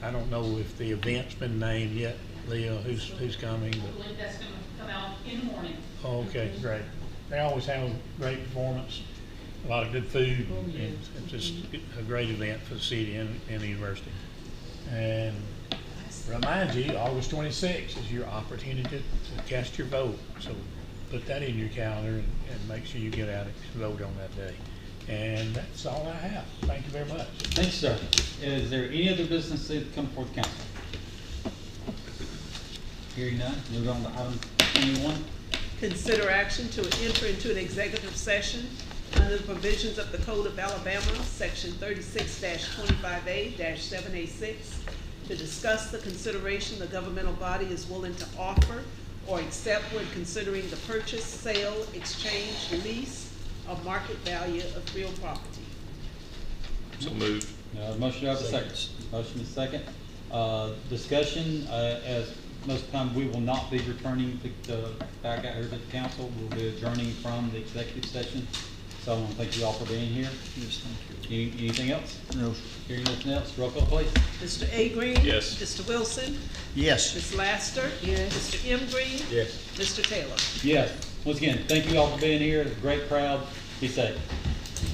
I don't know if the event's been named yet, Leah, who's, who's coming, I believe that's gonna come out in the morning. but, oh, okay, great. They always have a great performance, a lot of good food, and it's just a great event for the city and, and the university. And remind you, August twenty-sixth is your opportunity to to cast your vote, so put that in your calendar and, and make sure you get out and vote on that day. And that's all I have. Thank you very much. Thank you, sir. Is there any other business that come before the council? Hearing none, move on to item twenty-one. Consider action to enter into an executive session under the provisions of the Code of Alabama, section thirty-six twenty-five A seven A six, to discuss the consideration the governmental body is willing to offer or accept when considering the purchase, sale, exchange, lease, or market value of real property. So moved. Uh, motion, do I have a second? Motion is second. Uh, discussion, uh, as most of the time, we will not be returning to, to, back out here to the council. We'll be adjourning from the executive session. So I want to thank you all for being here. Yes, thank Any- Anything else? you. No. Hearing nothing else, roll call please. Mr. A Green? Yes. Mr. Wilson? Yes. Ms. Laster? Yes. Mr. M Green? Yes. Mr. Taylor? Yes, once again, thank you all for being here. Great crowd. Be safe.